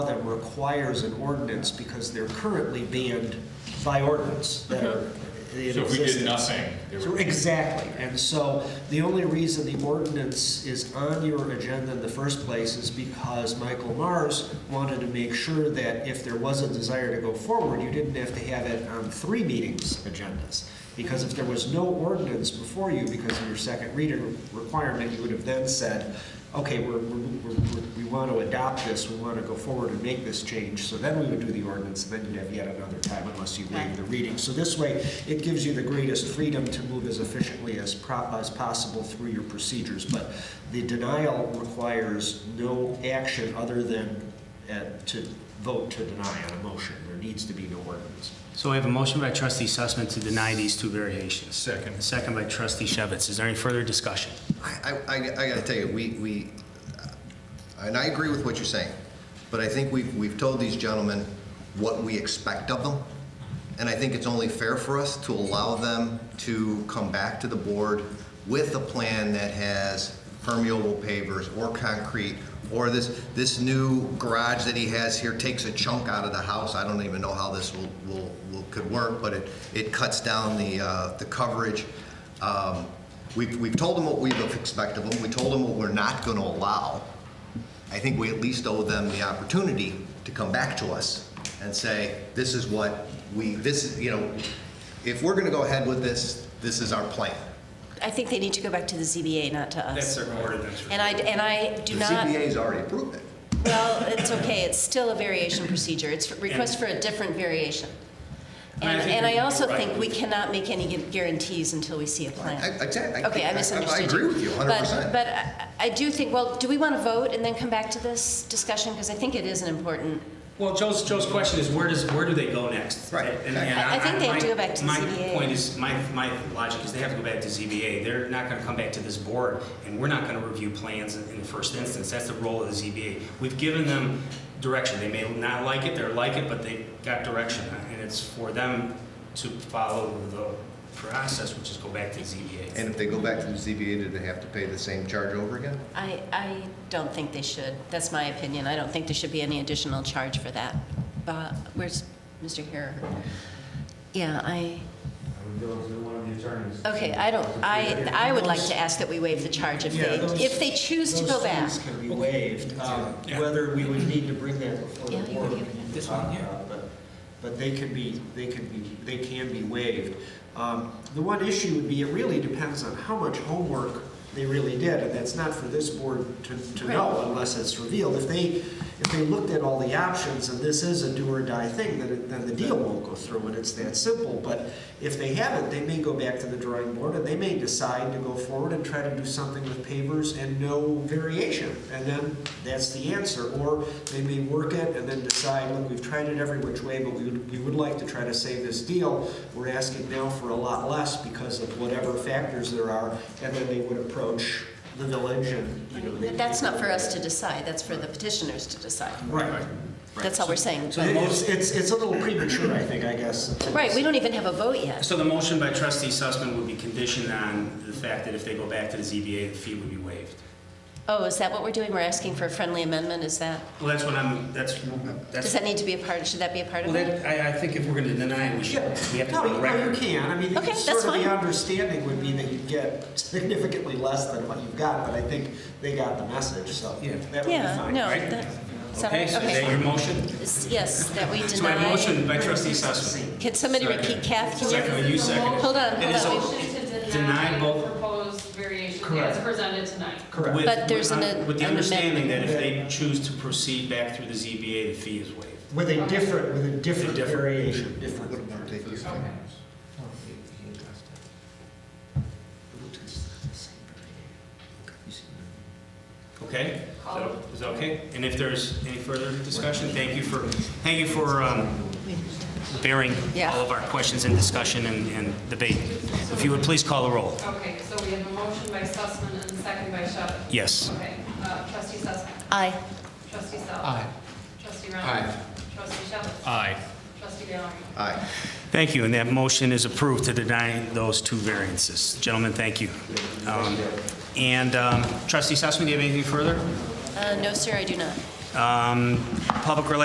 that requires an ordinance because they're currently banned by ordinance that are in So if we did existence. nothing, it So- would- Exactly. And so the only reason the ordinance is on your agenda in the first place is because Michael Mars wanted to make sure that if there was a desire to go forward, you didn't have to have it on three meetings agendas. Because if there was no ordinance before you because of your second reading requirement, you would have then said, okay, we're, we're, we're- we want to adopt this, we want to go forward and make this change. So then we would do the ordinance, then you'd have yet another time unless you waive the reading. So this way, it gives you the greatest freedom to move as efficiently as, pro- as possible through your procedures. But the denial requires no action other than uh, to vote to deny on a motion. There needs to be no ordinance. So we have a motion by trustee Sussman to deny these two variations. Second. A second by trustee Shevitz. Is there any further discussion? I, I, I gotta tell you, we, we, and I agree with what you're saying, but I think we've, we've told these gentlemen what we expect of them, and I think it's only fair for us to allow them to come back to the board with a plan that has permeable pavers or concrete, or this, this new garage that he has here takes a chunk out of the house. I don't even know how this will, will, will- could work, but it, it cuts down the, uh, the coverage. Um, We've, we've told them what we expect of them, we told them what we're not gonna allow. I think we at least owe them the opportunity to come back to us and say, this is what we, this, is you know, if we're gonna go ahead with this, this is our plan. I think they need to go back to the ZBA, not to us. That's their ordinance. And I, and I do The not, CBA's already approved it. well, it's okay, it's still a variation procedure. It's request for a different variation. And I And, think and I you're also right. think we cannot make any gu- guarantees until we see a plan. I- exactly. I- Okay, I- I- I misunderstood you. I agree with you But- 100%. But I- I do think, well, do we want to vote and then come back to this discussion? Because I think it is an important, Well, Joe's, Joe's question is where does, where do they go next? Right. And- and I- I think they have to go back to my- ZBA. My point is, my, my logic is they have to go back to ZBA. They're not gonna come back to this board, and we're not gonna review plans in in the first instance. That's the role of the ZBA. We've given them direction. They may not like it, they're like it, but they got direction, and it's for them to follow the process, which is go back to ZBA. And if they go back to the CBA, do they have to pay the same charge over again? I, I don't think they should. That's my opinion. I don't think there should be any additional charge for that. But, where's Mr. Hare? Yeah, I, I would go to one of the attorneys. Okay, I don't, I, I would like to ask that we waive the charge if Yeah, they, those- if they choose to go back. Those fees can be waived, um, Yeah. whether we would need to bring that before Yeah, the you board. would we give it. can This talk one here. about, But but they can be, they can be, they can be waived. Um, The one issue would be, it really depends on how much homework they really did, and that's not for this board to to know Right. unless it's revealed. If they, if they looked at all the options and this is a do or die thing, then, it- then the deal won't go through and it's that simple. But if they haven't, they may go back to the drawing board and they may decide to go forward and try to do something with pavers and no variation. And then that's the answer. Or they may work it and then decide, look, we've tried it every which way, but we would, we would like to try to save this deal. We're asking now for a lot less because of whatever factors there are. And then they would approach the village and, you know. they- But That's not for us to decide, that's for the petitioners to decide. Right. That's all we're saying. So it's, it's, it's a little premature, I think, I guess. Right, we don't even have a vote yet. So the motion by trustee Sussman would be conditioned on the fact that if they go back to the ZBA, the fee would be waived. Oh, is that what we're doing? We're asking for a friendly amendment, is that, Well, that's what I'm, that's, does that's, that need to be a part, should that be a part well, of it? that, I, I think if we're gonna deny, we should, Yeah. we have to No, go you- to no, you record. can, I mean, Okay, the- that's sort of fine. the understanding would be that you get significantly less than what you've got, but I think they got the message, so Yeah. that would be Yeah, fine. no, right? that, is that all Okay, right? so is that Okay. your motion? Is- Yes, that we So I have a deny. motion by trustee Sussman. Can somebody Second. repeat, Kath, can Second, you? you second it. Hold on, It is hold on. Motion Deny to deny both- the proposed variation Correct. as presented tonight. Correct. With- But there's an- With the an understanding that if they amendment. choose to proceed back through the ZBA, the fee is waived. With a different, with a different different- variation, different. Okay. Okay? So, Is that okay? And if there's any further discussion, thank you for, thank you for um, bearing Yeah. all of our questions and discussion and and debate. If you would please call the roll. Okay, so we have a motion by Sussman and a second by Shevitz. Yes. Okay, uh, trustee Sussman. Aye. Trustee Sal. Aye. Trustee Reynolds. Aye. Trustee Shevitz. Aye. Trustee Valerie. Aye. Thank you, and that motion is approved to deny those two variances. Gentlemen, thank you. Um, And um, trustee Sussman, do you have anything further? Uh, no, sir, I do not. Um, Public relations